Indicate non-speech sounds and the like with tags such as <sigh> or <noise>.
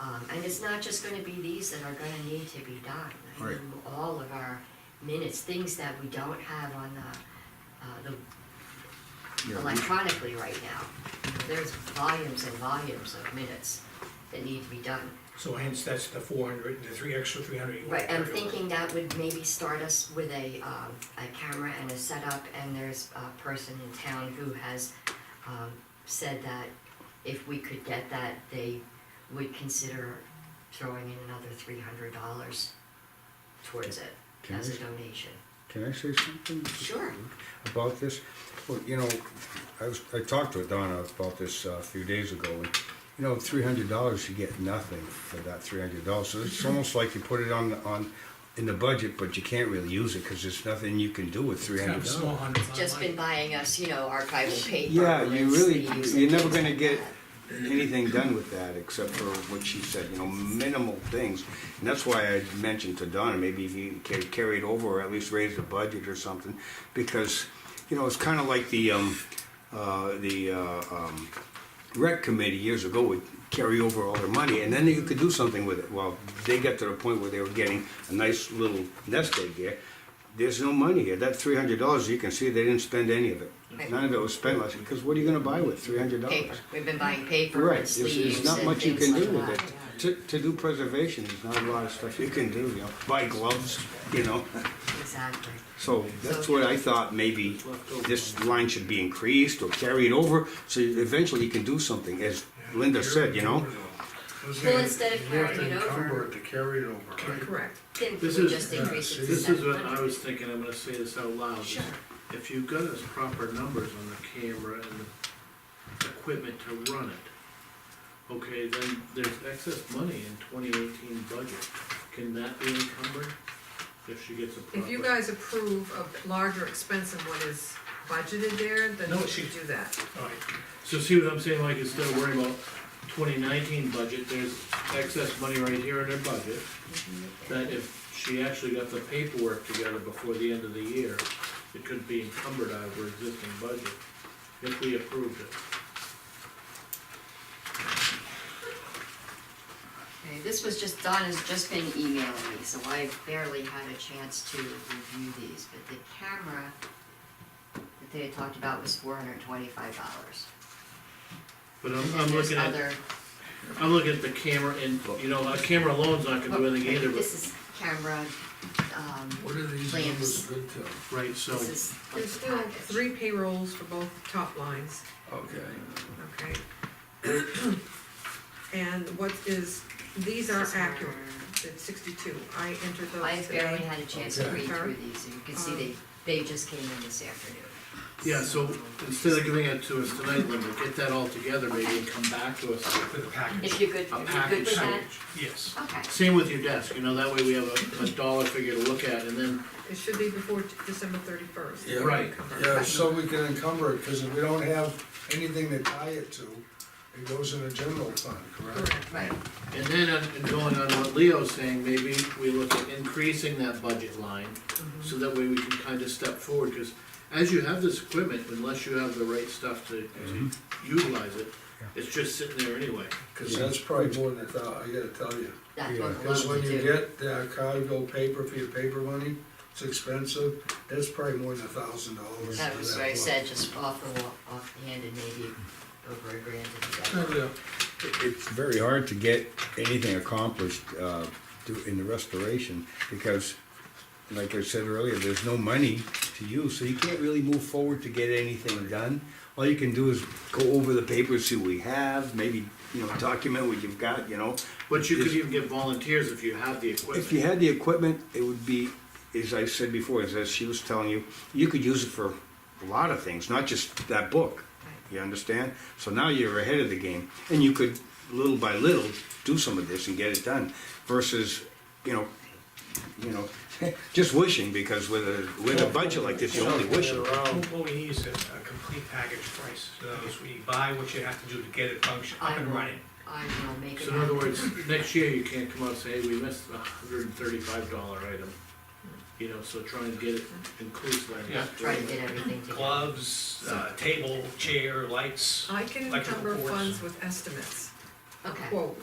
Um, and it's not just gonna be these that are gonna need to be done. I Right. mean, All of our minutes, things that we don't have on the, uh, the Yeah, we- electronically right now. There's volumes and volumes of minutes that need to be done. So hence, that's the four hundred, the three, extra three hundred you want Right, to I'm carry over. thinking that would maybe start us with a, um, a camera and a setup, and there's a person in town who has, um, said that if we could get that, they would consider throwing in another three hundred dollars towards it Can as a I- donation. Can I say something? Sure. About this? Well, you know, I was, I talked to Donna about this uh, a few days ago, and, you know, three hundred dollars, you get nothing for that three hundred dollars, so it's almost like you put it on, the- on, in the budget, but you can't really use it, cause there's nothing you can do with three It's kind of hundred a small dollars. hundred. Just been buying us, you know, <laughs> archival paper. Yeah, you and really, sleeves you're and never things gonna like get that. anything done with that, except for what she said, you know, minimal things. And that's why I mentioned to Donna, maybe if you ca- carry it over, or at least raise the budget or something, because, you know, it's kinda like the, um, uh, the, uh, um, rec committee years ago would carry over all their money, and then you could do something with it. Well, they got to the point where they were getting a nice little nest egg here. There's no money here. That three hundred dollars, you can see they didn't spend any of it. Right. None of it was spent last, because what are you gonna buy with three hundred Paper, dollars? we've been buying paper Right, and there's, sleeves there's not and much you things can do like with it. that, yeah. To, to do preservation, there's not a lot of stuff you can do, you know, buy gloves, you know. Exactly. So that's what I thought, maybe this line should be increased or carried over, so eventually you can do something, as Linda said, you know? Well, instead of You have to carrying it encumber over- it To carry it over, right? Correct. Then we This is, uh, just increase it to this is what I 700. was thinking, I'm gonna say this out loud. Sure. If you've got us proper numbers on the camera and the equipment to run it, okay, then there's excess money in twenty eighteen budget. Can that be encumbered if she gets a proper? If you guys approve of larger expense than what is budgeted there, then No, we she- should do that. Alright, so see what I'm saying, like, instead of worrying about twenty nineteen budget, there's excess money right here in her budget. That if she actually got the paperwork together before the end of the year, it could be encumbered out of her existing budget, if we approved it. Okay, this was just, Donna's just been emailing me, so I barely had a chance to review these, but the camera that they had talked about was four hundred and twenty-five dollars. But I'm, I'm looking at, Other, I'm looking at the camera input, you know, a camera alone's not gonna do anything either, Oh, this but, is camera, um, What are these Lamps. numbers good to? right, so, this is. There's still three payrolls for both top lines, Okay. okay? And what is, these are These are- accurate, it's sixty-two, I entered I those barely today. had a chance to Okay. read through these, and you can see they, Um, they just came in this afternoon. yeah, so, instead of giving it to us tonight, Linda, get that all together maybe and come back to us For the package. If you're good, if a you're good package. with that, Yes. okay. Same with your desk, you know, that way we have a, a dollar figure to look at, and then, It should be before December thirty-first. Yeah. Right. Yeah, so we can encumber it, cause if we don't have anything to tie it to, it goes in a general fund, correct? Correct. Right, and then, uh, and going on what Leo's saying, maybe we look at increasing that budget line, so that way we can kind of step forward, because as you have this equipment, unless you have the right stuff to, to Mm-hmm. utilize it, it's just sitting there anyway. Cause that's probably more than a thou, I gotta tell you. that's Yeah, what we Cause when love to you do. get the cargo paper for your paper money, it's expensive, that's probably more than a thousand dollars. That for was that what I book. said, just off the wall, offhand and maybe over a grand and Yeah, It's very hard to get anything accomplished, uh, do- in the restoration, because, like I said earlier, there's no money to use, so you can't really move forward to get anything done. All you can do is go over the papers, see what we have, maybe, you know, document what you've got, you know, But you could even get volunteers if you have the If you equipment. had the equipment, it would be, as I said before, as she was telling you, you could use it for a lot of things, not just that book. You understand? So now you're ahead of the game, and you could, little by little, do some of this and get it done, versus, you know, you know, <laughs> just wishing, because with a, with a budget like this, you only wish. What what we need is a, a complete package price, so those, we buy what you have to do to get it function, up and running. I will make it So in other happen. words, next year you can't come out and say, hey, we missed a hundred and thirty-five dollar item, you know, so try and get it inclusive. I guess. Try to get everything together. Gloves, uh, table, chair, lights. I can Electrical encumber cords. funds with estimates, Okay, quotes.